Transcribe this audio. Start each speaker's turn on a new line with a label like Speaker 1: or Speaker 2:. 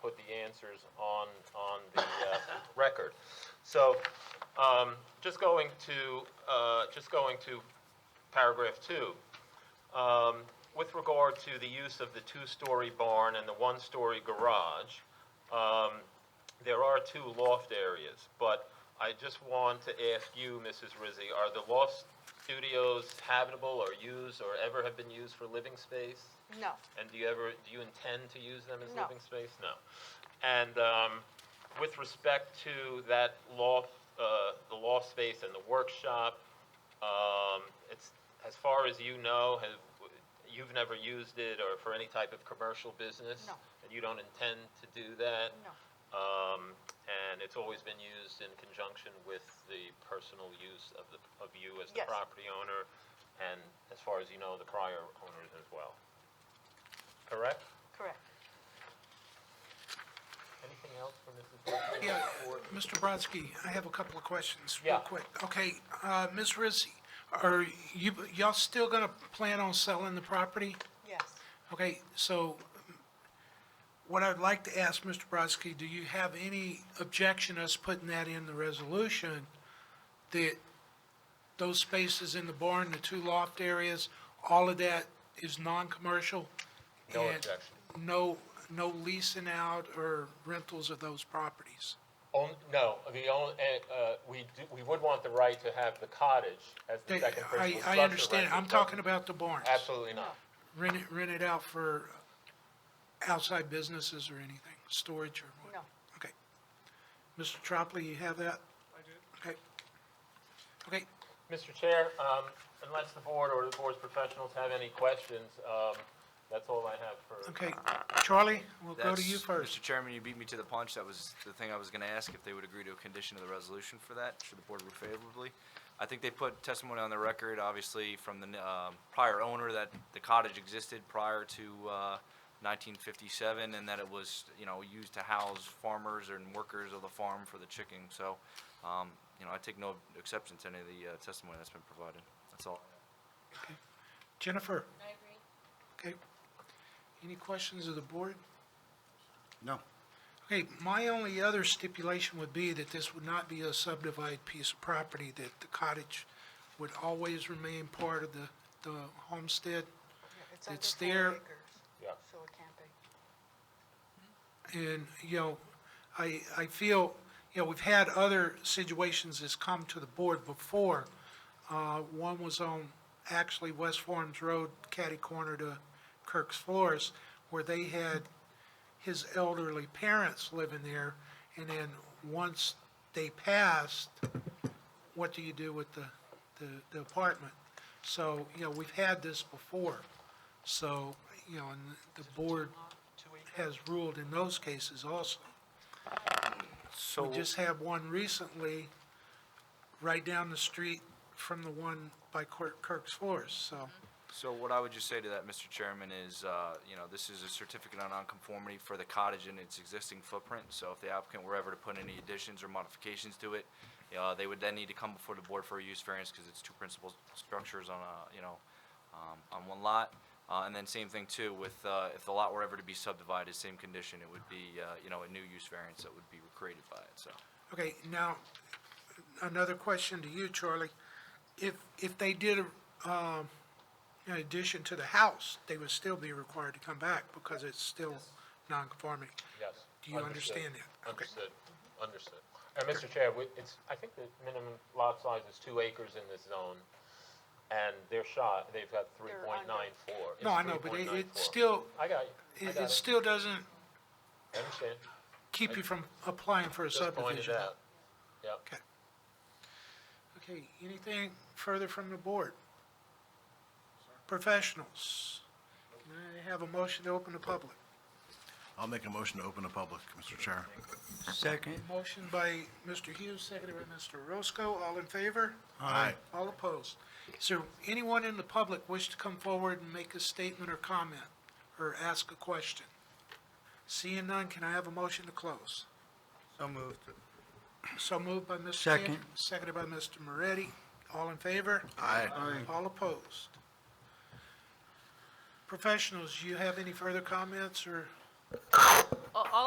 Speaker 1: put the answers on, on the uh, record. So, um, just going to, uh, just going to paragraph two. Um, With regard to the use of the two-story barn and the one-story garage, um, there are two loft areas, but I just want to ask you, Mrs. Rizzi, are the loft studios habitable or used or ever have been used for living space?
Speaker 2: No,
Speaker 1: And do you ever, do you intend to use them as
Speaker 2: No.
Speaker 1: living space? No. And um, with respect to that loft, uh, the loft space and the workshop, um, it's, as far as you know, have, you've never used it or for any type of commercial business?
Speaker 2: No.
Speaker 1: And you don't intend to do that?
Speaker 2: no,
Speaker 1: Um, and it's always been used in conjunction with the personal use of the, of you as the
Speaker 2: Yes.
Speaker 1: property owner, and as far as you know, the prior owners as well. Correct?
Speaker 2: correct.
Speaker 1: Anything else from Mrs. Brooks?
Speaker 3: Yeah, Mr. Brodsky, I have a couple of questions,
Speaker 1: Yeah.
Speaker 3: real quick. Okay, uh, Ms. Rizzi, are you, y'all still gonna plan on selling the property?
Speaker 2: Yes,
Speaker 3: Okay, so um, what I'd like to ask, Mr. Brodsky, do you have any objection us putting that in the resolution? That those spaces in the barn, the two loft areas, all of that is non-commercial?
Speaker 1: No
Speaker 3: and
Speaker 1: objection.
Speaker 3: No, no leasing out or rentals of those properties?
Speaker 1: On, no, the only, uh, uh, we, do- we would want the right to have the cottage as the
Speaker 3: They-
Speaker 1: second principal
Speaker 3: I, I
Speaker 1: structure
Speaker 3: understand,
Speaker 1: rented,
Speaker 3: I'm
Speaker 1: but
Speaker 3: talking about the barns.
Speaker 1: Absolutely not.
Speaker 3: Rent it, rent it out for outside businesses or anything, storage or what?
Speaker 2: no.
Speaker 3: Okay. Mr. Tropoli, you have that? I do. Okay. Okay,
Speaker 1: Mr. Chair, um, unless the board or the board's professionals have any questions, um, that's all I have for.
Speaker 3: okay. Charlie, we'll go to
Speaker 4: That's-
Speaker 3: you first.
Speaker 4: Mr. Chairman, you beat me to the punch. That was the thing I was going to ask, if they would agree to a condition of the resolution for that, should the board rule favorably. I think they put testimony on the record, obviously, from the um, prior owner that the cottage existed prior to uh, 1957, and that it was, you know, used to house farmers and workers of the farm for the chicken. So, um, you know, I take no exception to any of the uh, testimony that's been provided. That's all.
Speaker 3: Jennifer? I agree. Okay. Any questions of the board?
Speaker 5: No.
Speaker 3: Okay, my only other stipulation would be that this would not be a subdivided piece of property, that the cottage would always remain part of the, the homestead.
Speaker 2: under
Speaker 3: It's
Speaker 2: four
Speaker 3: there.
Speaker 2: acres,
Speaker 1: Yeah.
Speaker 2: So it can't be.
Speaker 3: And, you know, I, I feel, you know, we've had other situations that's come to the board before. Uh, One was on actually West Farms Road, catty corner to Kirk's Floors, where they had his elderly parents living there. And then once they passed, what do you do with the, the- the apartment? So, you know, we've had this before. So, you know, and the board has ruled in those cases also.
Speaker 4: So,
Speaker 3: We just had one recently, right down the street from the one by Kirk- Kirk's Floors, so,
Speaker 4: So what I would just say to that, Mr. Chairman, is, uh, you know, this is a certificate of nonconformity for the cottage in its existing footprint. So if the applicant were ever to put any additions or modifications to it, uh, they would then need to come before the board for a use variance because it's two principal structures on a, you know, um, on one lot. Uh, And then same thing too with, uh, if the lot were ever to be subdivided, same condition, it would be, uh, you know, a new use variance that would be created by it, so.
Speaker 3: okay, now, another question to you, Charlie. If, if they did, a, um, an addition to the house, they would still be required to come back because it's still non-conforming.
Speaker 1: Yes.
Speaker 3: Do you
Speaker 1: Understood.
Speaker 3: understand that? Okay.
Speaker 1: Understood, understood. And Mr. Chair, we- it's, I think the minimum lot size is two acres in this zone, and they're shot, they've got three
Speaker 2: They're
Speaker 1: point
Speaker 2: under.
Speaker 1: nine four.
Speaker 3: No, I know, but it, it still,
Speaker 1: I got you, I
Speaker 3: it,
Speaker 1: got
Speaker 3: it
Speaker 1: it,
Speaker 3: still doesn't
Speaker 1: I understand,
Speaker 3: keep you from applying for a
Speaker 1: just
Speaker 3: subdivision.
Speaker 1: pointed out. Yep.
Speaker 3: Okay. Okay, anything further from the board? Professionals? Can I have a motion to open the public?
Speaker 5: I'll make a motion to open the public, Mr. Chair.
Speaker 6: Second.
Speaker 3: Motion by Mr. Hughes, seconded by Mr. Roscoe. All in favor?
Speaker 5: Aye.
Speaker 3: All opposed? Is there anyone in the public wish to come forward and make a statement or comment, or ask a question? Seeing none, can I have a motion to close?
Speaker 6: So moved.
Speaker 3: So moved by Mr.
Speaker 6: Second.
Speaker 3: Cantor, Seconded by Mr. Moretti. All in favor?
Speaker 5: Aye.
Speaker 3: All opposed? Professionals, do you have any further comments or?
Speaker 7: All all